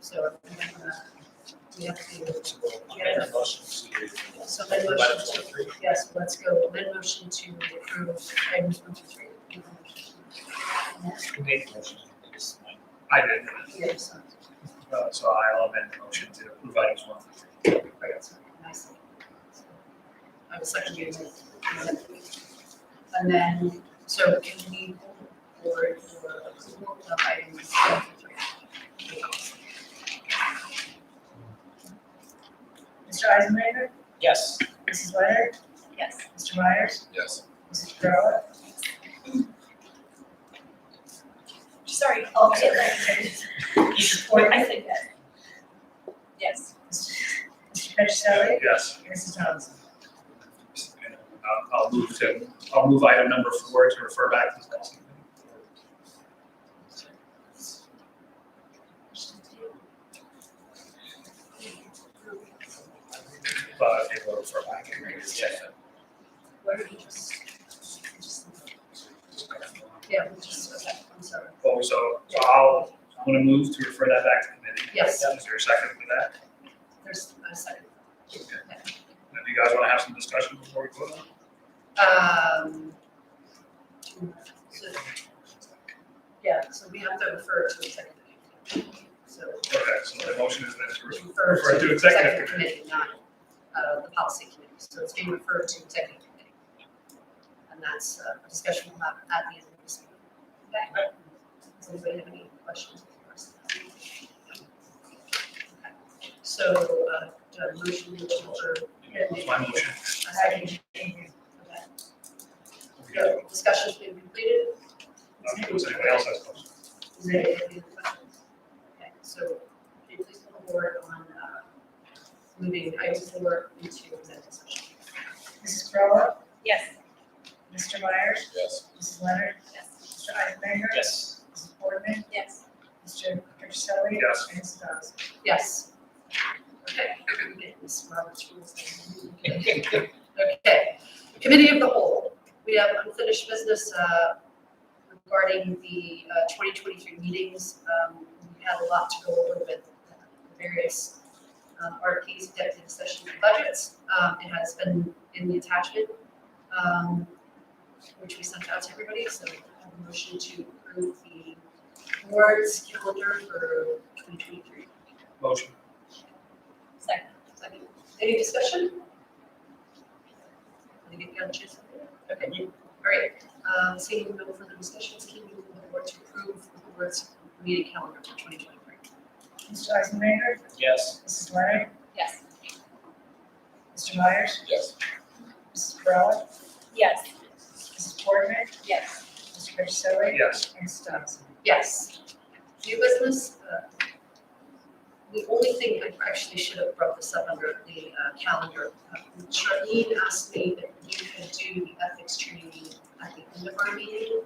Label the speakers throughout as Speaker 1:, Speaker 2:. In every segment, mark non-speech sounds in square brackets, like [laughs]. Speaker 1: so uh, we have to,
Speaker 2: Amend the motion to.
Speaker 1: so my
Speaker 2: Item
Speaker 1: motion,
Speaker 2: twenty-three.
Speaker 1: yes, let's go, my motion to approve item twenty-three.
Speaker 2: Who made the motion? I guess mine.
Speaker 3: I did,
Speaker 1: Yes,
Speaker 3: uh, so I'll amend the motion to approve items one through three.
Speaker 1: I got something nice. I was second you. And then, so can we board for approval of item twenty-three? Mr. Eisenberger,
Speaker 2: Yes.
Speaker 1: Mrs. Leonard,
Speaker 4: Yes.
Speaker 1: Mr. Myers,
Speaker 2: Yes.
Speaker 1: Mrs. Perrot,
Speaker 4: Sorry, I'll get that. I said yes. Yes.
Speaker 1: Mr. Petricelli,
Speaker 3: Yes.
Speaker 1: Mrs. Thompson.
Speaker 3: And, uh, I'll move to, I'll move item number four to refer back to the policy committee. Uh, they will refer back and we can check it.
Speaker 1: Where did we just? Yeah, we just, okay, I'm sorry.
Speaker 3: Oh, so, so I'll, I'm gonna move to refer that back to committee.
Speaker 1: Yes.
Speaker 3: Is there a second for that?
Speaker 1: There's, I second.
Speaker 3: And do you guys wanna have some discussion before we vote?
Speaker 1: Um. so- Yeah, so we have to refer to executive. So
Speaker 3: Okay, so the motion is then to refer
Speaker 1: refer
Speaker 3: Refer
Speaker 1: to
Speaker 3: to executive
Speaker 1: executive committee, not uh the policy committee. So it's being referred to executive committee. And that's uh, a discussion we'll have at the end of this meeting. Okay? Does anybody have any questions? for us? Okay. So uh, do I have a motion to adjourn?
Speaker 3: That's my motion.
Speaker 1: A second. Okay. So discussion's been completed.
Speaker 3: Okay, does anybody else have questions?
Speaker 1: Is there any other questions? Okay, so can you please come forward on uh, moving item four into executive session? Mrs. Perrot,
Speaker 4: Yes.
Speaker 1: Mr. Myers,
Speaker 2: Yes.
Speaker 1: Mrs. Leonard,
Speaker 4: Yes.
Speaker 1: Mr. Eisenmaker,
Speaker 2: Yes.
Speaker 1: Mrs. Boardman,
Speaker 4: Yes.
Speaker 1: Mr. Patricelli.
Speaker 3: Yes.
Speaker 1: and Mrs. Dawson. Yes. Okay, Ms. Roberts rules. Okay, committee of the whole, we have unfinished business uh, regarding the uh, 2023 meetings. Um, We had a lot to go over with the various um, RFPs, executive session and budgets. Um, It has been in the attachment, um, which we sent out to everybody, so I have a motion to approve the board's calendar for 2023.
Speaker 3: Motion.
Speaker 4: Second.
Speaker 1: Second. Any discussion? Did you get the other chance? Okay, all right, um, seeing no further discussions, can you move the board to approve the board's meeting calendar for twenty twenty-three?
Speaker 5: Mr. Eisenmaker,
Speaker 2: Yes.
Speaker 5: Mrs. Leonard,
Speaker 4: Yes.
Speaker 5: Mr. Myers,
Speaker 2: Yes.
Speaker 5: Mrs. Perrot,
Speaker 4: Yes.
Speaker 5: Mrs. Boardman,
Speaker 4: Yes.
Speaker 5: Mr. Patricelli,
Speaker 3: Yes.
Speaker 5: and Mrs. Dawson.
Speaker 1: Yes. New business, uh, the only thing I actually should have brought this up under the uh, calendar. uh, Charlene asked me if you could do the ethics training at the end of our meeting.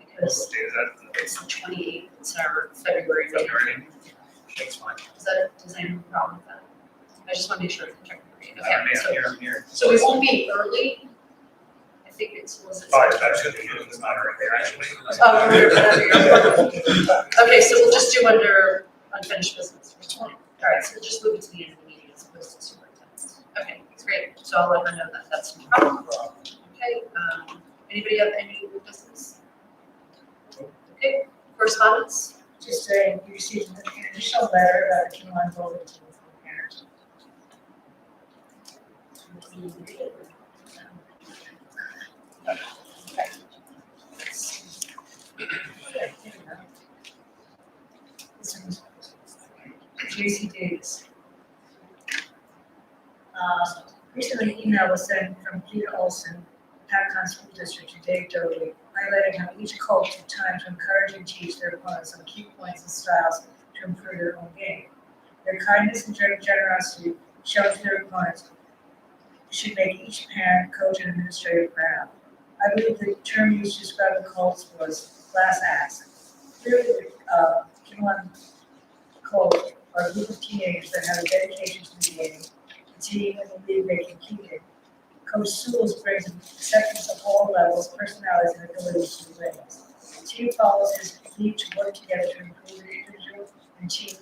Speaker 1: Because
Speaker 3: Okay, is that,
Speaker 1: it's the twenty-eighth, it's our February meeting.
Speaker 3: February. that's fine.
Speaker 1: Is that, does anyone have a problem with that? I just want to make sure. it's checked.
Speaker 3: I don't
Speaker 1: Okay, so,
Speaker 3: know, I'm here.
Speaker 1: so we won't be early. I think it's, was it?
Speaker 3: Five, that should be, it's not right there, actually.
Speaker 1: Oh, remember, whatever
Speaker 3: [laughs]
Speaker 1: you're- Okay, so we'll just do under unfinished business. All right, so we'll just move it to the end of the meeting as opposed to superintendent. Okay, that's great. So I'll let her know that that's no problem. Okay, um, anybody have any new business? Okay, correspondence?
Speaker 5: Just a, you received an initial letter about the K-1 bulletin from parents. This one's Tracy Davis. Uh, Recently, an email was sent from Peter Olson, Patacon School District, to Dave Doty, highlighting how each coach took time to encourage and teach their opponents on key points and styles to improve their own game. Their kindness and gen- generosity shown to their opponents should make each parent, coach, and administrator proud. I believe the term used to describe the Colts was class acts. Clearly, uh, Kinlan Colts are a group of teenagers that have a dedication to the game team and the league they competed. Coach Sewell's brings acceptance of all levels, personalities, and abilities to the ranks. The team follows his lead to work together to improve the individual and team